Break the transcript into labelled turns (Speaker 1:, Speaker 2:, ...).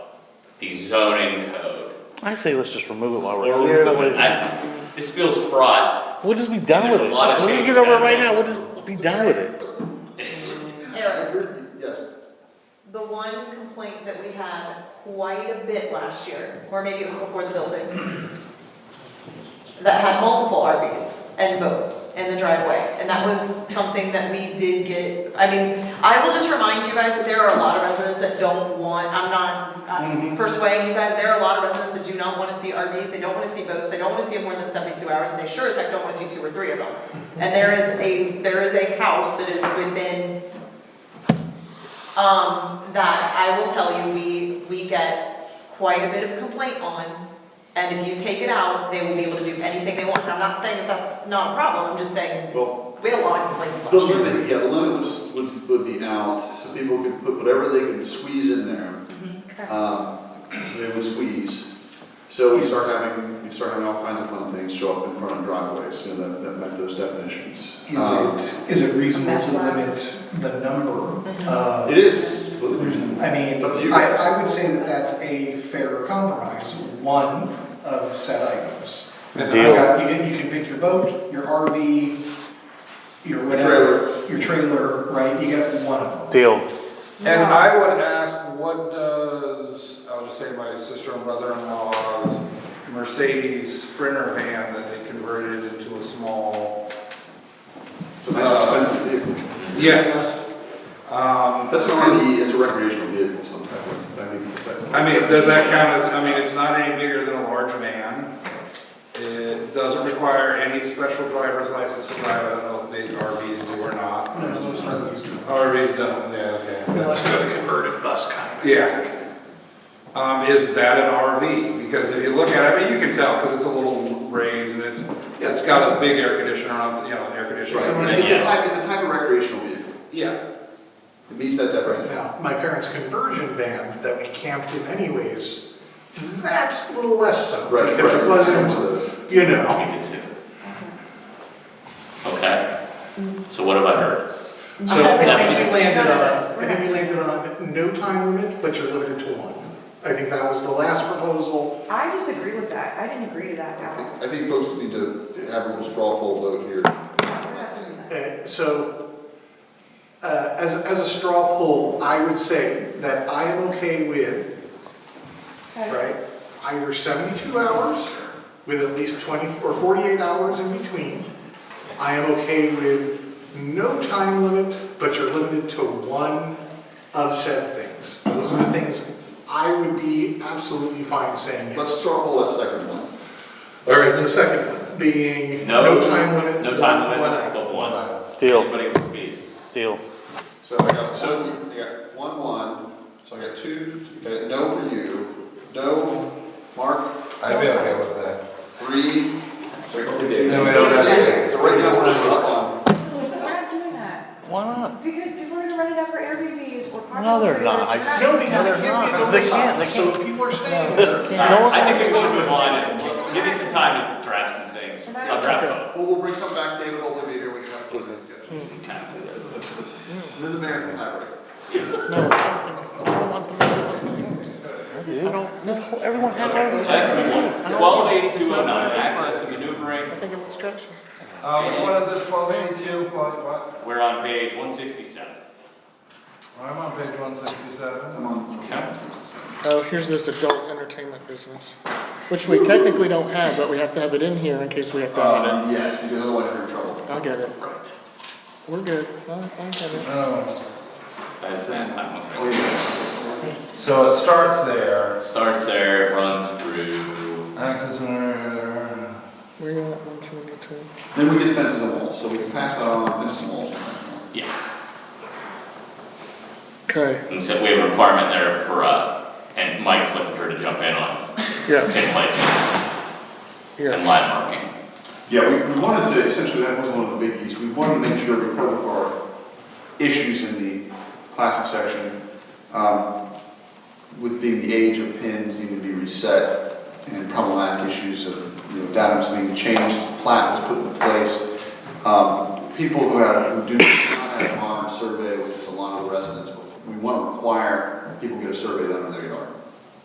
Speaker 1: the zoning code.
Speaker 2: I say let's just remove it while
Speaker 1: Or
Speaker 2: we're here. That
Speaker 1: remove it.
Speaker 2: way-
Speaker 1: I- This feels fraught.
Speaker 2: We'll just be done with it.
Speaker 1: There's a lot of
Speaker 2: Let's just get
Speaker 1: changes
Speaker 2: over it
Speaker 1: happening.
Speaker 2: right now. We'll just be done with it.
Speaker 1: It's-
Speaker 3: Anyway,
Speaker 4: Yes.
Speaker 3: the one complaint that we had quite a bit last year, or maybe it was before the building, that had multiple RVs and boats in the driveway, and that was something that we did get, I mean, I will just remind you guys that there are a lot of residents that don't want, I'm not uh, persuading you guys, there are a lot of residents that do not wanna see RVs, they don't wanna see boats, they don't wanna see them more than seventy-two hours, and they sure as heck don't wanna see two or three of them. And there is a, there is a house that is within um, that I will tell you, we, we get quite a bit of complaint on. And if you take it out, they will be able to do anything they want. And I'm not saying that that's not a problem, I'm just saying,
Speaker 4: Well,
Speaker 3: we had a lot of complaints
Speaker 4: the
Speaker 3: last year.
Speaker 4: limit, yeah, the limit was, would, would be out, so people could put whatever they could squeeze in there.
Speaker 3: Okay.
Speaker 4: Um, they would squeeze. So we start having, we start having all kinds of fun things show up in front of driveways, you know, that, that met those definitions.
Speaker 5: Is
Speaker 4: Um,
Speaker 5: it, is it reasonable to limit the number of?
Speaker 4: It is, it's completely reasonable.
Speaker 5: I mean,
Speaker 4: It's up to you
Speaker 5: I,
Speaker 4: guys.
Speaker 5: I would say that that's a fair compromise, one of set items.
Speaker 2: Deal.
Speaker 5: You got- You can, you can pick your boat, your RV, your whatever, your trailer, right, you get one of them.
Speaker 2: Deal.
Speaker 6: And I would ask, what does, I'll just say my sister and brother-in-law's Mercedes Sprinter van that they converted into a small,
Speaker 4: It's a nice expensive vehicle.
Speaker 6: Uh, yes. Um,
Speaker 4: That's an RV, it's a recreational vehicle sometimes, I mean. that-
Speaker 6: I mean, does that count as, I mean, it's not any bigger than a large van. It doesn't require any special driver's license to drive, I don't know if big RVs do or not. RVs don't, yeah, okay.
Speaker 5: Unless they're the converted bus kind
Speaker 6: Yeah. Um, is that an RV? Because if you look at it, I mean, you can tell, because it's a little raised and it's, it's got a big air conditioner on, you know, air
Speaker 4: It's
Speaker 6: conditioner.
Speaker 4: a, it's
Speaker 6: on it.
Speaker 4: a type, it's a type of recreational vehicle,
Speaker 6: Yeah,
Speaker 4: it meets that definition.
Speaker 7: Now, my parents' conversion van that we camped in anyways, that's a little less so,
Speaker 4: Right,
Speaker 7: because
Speaker 4: right.
Speaker 7: it
Speaker 4: One of
Speaker 7: wasn't,
Speaker 4: those.
Speaker 7: you
Speaker 1: we
Speaker 7: know.
Speaker 1: did too. Okay, so what have I heard?
Speaker 7: So I think we
Speaker 1: Okay.
Speaker 7: landed on, I think we landed on no time limit, but you're limited to one. I think that was the last proposal.
Speaker 3: I disagree with that, I didn't agree to that
Speaker 4: I think- I think folks need to have a little straw poll vote here.
Speaker 7: Uh, So, uh, as, as a straw poll, I would say that I am okay with, right, either 72 hours with at least 20, or 48 hours in between. I am okay with no time limit, but you're limited to one of said things. Those are the things I would be absolutely fine saying.
Speaker 4: Let's straw poll that second one.
Speaker 7: All right, the second one being
Speaker 1: No-
Speaker 7: no time limit.
Speaker 1: No time
Speaker 7: one item.
Speaker 1: limit, but one.
Speaker 2: Deal.
Speaker 1: Anybody would be.
Speaker 2: Deal.
Speaker 4: So I got one, I got one, one, so I got two, okay, no for you, no, Mark,
Speaker 6: I'd be okay with that.
Speaker 4: three. So
Speaker 6: No, we don't have to.
Speaker 4: right now, we're up on,
Speaker 8: We're not doing that,
Speaker 2: Why not?
Speaker 8: because people are gonna run it up for Airbnbs or parking.
Speaker 2: No, they're not. I-
Speaker 8: lots.
Speaker 7: No, because it can't
Speaker 2: No,
Speaker 7: get
Speaker 2: they can't,
Speaker 7: oversized,
Speaker 2: they
Speaker 7: so
Speaker 2: can't.
Speaker 7: if people are staying there.
Speaker 2: No one-
Speaker 1: I think we should move on and give me some time to draft some things. I'll draft
Speaker 4: well, we'll bring some back, David, will leave it here, we can have a closing discussion.
Speaker 1: both. Hmm. Kind of.
Speaker 4: Mid American tirade.
Speaker 2: I don't, this whole- everyone's not going
Speaker 1: Okay, so that's good one. Twelve eighty-two oh nine, access and maneuvering.
Speaker 6: Uh, which one is it, twelve eighty-two, what, what?
Speaker 1: We're on page one sixty-seven.
Speaker 6: I'm on page one sixty-seven.
Speaker 4: Come on.
Speaker 1: Okay.
Speaker 9: Oh, here's this adult entertainment business, which we technically don't have, but we have to have it in here in case we have to add
Speaker 4: Uh, yes, because otherwise you're in trouble.
Speaker 9: it. I'll get it. We're good. I, I get it.
Speaker 6: Oh,
Speaker 1: That's that, I'm one
Speaker 4: Oh,
Speaker 1: second.
Speaker 4: yeah.
Speaker 6: So it starts there.
Speaker 1: Starts there, runs through.
Speaker 6: Access and.
Speaker 9: We got one, two, one, two.
Speaker 4: Then we get fences and walls, so we can pass that on, finish some walls.
Speaker 1: Yeah,
Speaker 9: Okay,
Speaker 1: and so we have a requirement there for, uh, and Mike Flicker to jump in on
Speaker 9: yes,
Speaker 1: pin placements and
Speaker 9: yes.
Speaker 1: line marking.
Speaker 4: Yeah, we, we wanted to, essentially, that was one of the biggies, we wanted to make sure we covered our issues in the classic section, um, with being the age of pins needing to be reset, and problematic issues of, you know, datums being changed, plat was put into place. Um, people who have, who do not have a modern survey, which is a lot of the residents, we wanna require people get a survey done in their yard.